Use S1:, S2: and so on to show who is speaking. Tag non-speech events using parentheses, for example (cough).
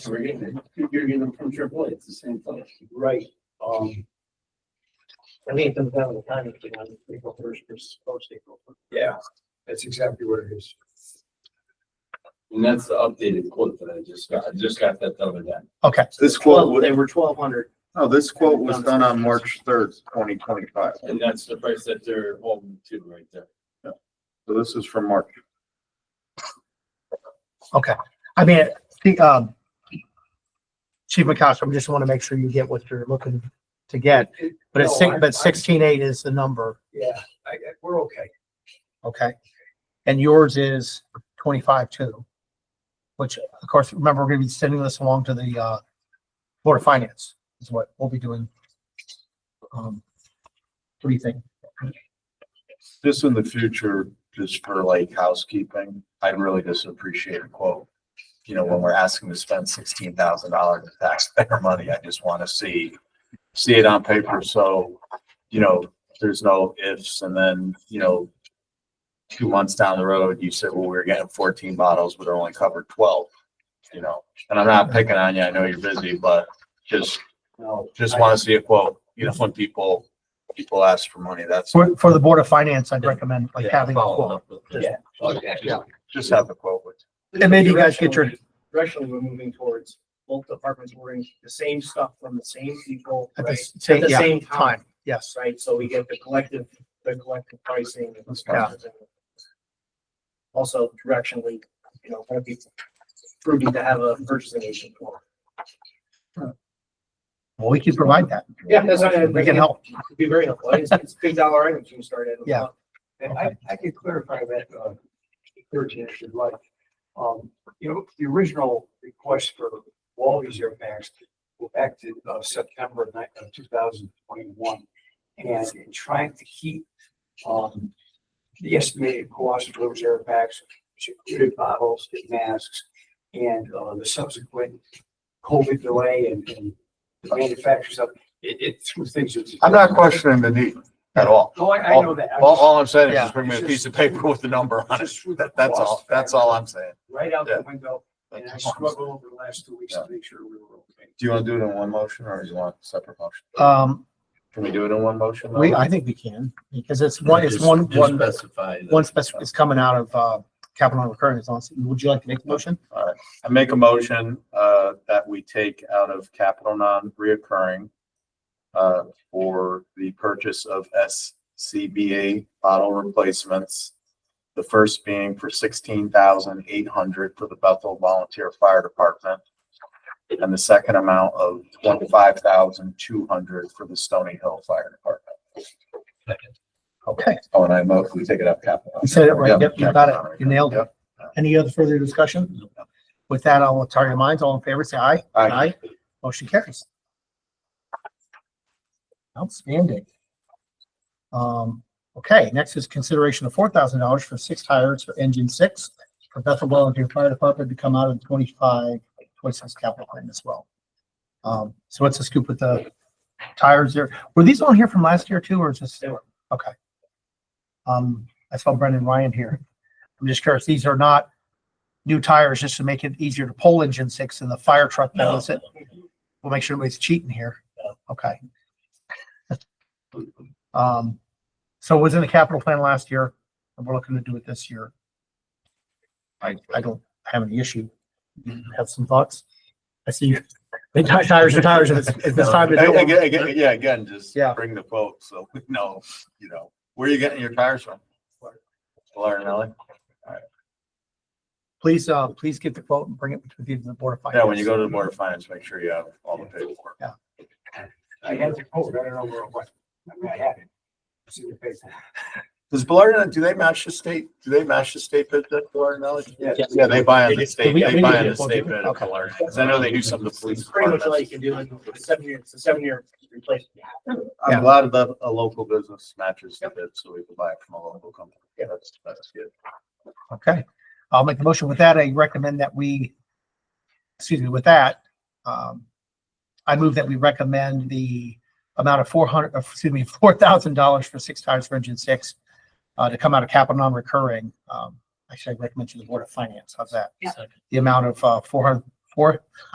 S1: So we're getting, you're getting them from AAA, it's the same place.
S2: Right, um. I think it comes down to the timing, you know, April first versus post April. Yeah, that's exactly what it is.
S1: And that's the updated quote that I just got, I just got that the other day.
S3: Okay,
S4: This quote,
S2: Well,
S4: was
S2: they were twelve hundred.
S4: no, this quote was done on March third, twenty twenty-five.
S1: And that's the price that they're holding to right there.
S4: So this is from March.
S3: okay. I mean, the, um, Chief McCosker, I just want to make sure you get what you're looking to get, but it's, six- but sixteen eight is the number,
S2: Yeah, I, I- we're okay.
S3: okay? And yours is twenty-five two, which of course, remember, we're going to be sending this along to the, uh, Board of Finance is what we'll be doing. Um, what do you think?
S4: This in the future, just for like housekeeping, I'd really just appreciate a quote. You know, when we're asking to spend sixteen thousand dollars of taxpayer (laughs) money, I just want to see, see it on paper. So, you know, there's no ifs and then, you know, two months down the road, you said, well, we were getting fourteen bottles, but it only covered twelve, you know? And I'm not picking on you. I know you're busy, but just,
S2: No.
S4: just want to see a quote. You know, when people, people ask for money, that's.
S3: For, for the Board of Finance, I'd recommend like having a
S4: Follow
S3: quote.
S4: up with-
S2: Yeah.
S4: Okay,
S3: Yeah.
S4: just, just have the quote with.
S3: And maybe you guys get your-
S2: Directionally, we're moving towards both departments ordering the same stuff from the same people,
S3: At
S2: right?
S3: the same,
S2: At the
S3: yeah,
S2: same time.
S3: time, yes.
S2: right? So we get the collective, the collective pricing. and the
S3: Yeah.
S2: prices and- Also directionally, you know, that'd be prudent to have a purchasing agent for.
S3: Well, we can provide that.
S2: Yeah, that's what I-
S3: We can help.
S2: It'd Be very helpful. It's, it's big dollar items you can start at.
S3: Yeah.
S5: And I, I could clarify that, uh, thirteen, if you'd like. Um, you know, the original request for all these airbags go back to, uh, September of ni- of two thousand twenty-one. And in trying to keep, um, the estimated cost of those airbags, which included bottles, and masks, and, uh, the subsequent COVID delay and, and the manufacturers of, it, it threw things. into-
S4: I'm not questioning the need at all.
S2: Oh,
S5: No, I, I know that. I'm
S4: All,
S5: just-
S4: all I'm saying is
S3: Yeah.
S4: just bring me a piece of paper with the number on it.
S5: just threw the
S4: That, that's all,
S5: cost
S4: that's
S5: factor
S4: all I'm saying.
S5: Right out
S4: Yeah.
S5: the window, and I
S4: That's all I'm saying.
S5: struggled over the last two weeks to make sure we were okay.
S4: Do you want to do it in one motion or do you want separate motion?
S3: Um,
S4: Can we do it in one motion?
S3: we, I think we can, because it's one, it's one, one,
S1: Specify.
S3: one special, it's coming out of, uh, capital and recurring. It's on- Would you like to make the motion?
S4: I make a motion, uh, that we take out of capital non-reoccurring, uh, for the purchase of SCBA bottle replacements. The first being for sixteen thousand eight hundred for the Bethel Volunteer Fire Department. And the second amount of twenty-five thousand two hundred for the Stony Hill Fire Department.
S3: Okay,
S4: Oh, and I mo, we take it up capital.
S3: you said it right.
S4: Yep,
S3: Yep, you got
S4: capital
S3: it. You nailed it.
S4: Yep.
S3: Any other further discussion? With that, I'll tell your minds. All in favor, say aye.
S4: Aye.
S3: Motion carries. Outstanding. Um, okay, next is consideration of four thousand dollars for six hires for engine six for Bethel Volunteer Fire Department to come out of the 25 26 capital plan as well. Um, so what's the scoop with the tires there? Were these on here from last year too, or is this?
S2: They were.
S3: Okay. Um, I saw Brendan Ryan here. I'm just curious, these are not new tires just to make it easier to pull engine six in the fire truck that was it? We'll make sure nobody's cheating here. Okay. (laughs) Um, so it was in the capital plan last year, and we're looking to do it this year. I, I don't have any issue. You Have some thoughts? I see you. They tie tires and tires, and it's, it's
S4: (laughs)
S3: this time.
S4: I- I-
S3: to
S4: I- I- Yeah, again, just
S3: Yeah.
S4: bring the quote, so we know, you know, where you getting your tires from? Florida, Nelly?
S3: Please, uh, please get the quote and bring it with you to the board of finance.
S4: Yeah, when you go to the board of finance, make sure you have all the paperwork.
S5: I had the quote, I don't know where it was. I mean, I had it. It's in the paper.
S4: Does Florida, do they match the state, do they match the state bid that Florida, Nelly?
S5: Yeah.
S4: Yeah, they buy on
S3: They
S4: the
S3: do.
S4: state,
S3: We- we
S4: they
S3: need
S4: buy
S3: to
S4: on
S3: get
S4: the
S3: both
S4: state
S3: of them.
S4: bid of
S3: Okay.
S4: Florida, because I know they do some of the police.
S2: It's pretty much all you
S4: departments.
S2: can do in a seven year, it's a seven year replacement.
S4: A lot of the, a local business matches the bid, so we can buy it from a local company. Yeah, that's, that's good.
S3: Okay, I'll make the motion with that. I recommend that we, excuse me, with that, um, I move that we recommend the amount of four hundred, uh, excuse me, (laughs) four thousand dollars for six tires for engine six uh, to come out of capital non-recurring. Um, actually, I recommend to the Board of Finance. How's that?
S6: Yeah.
S3: The amount of, uh, four hundred, four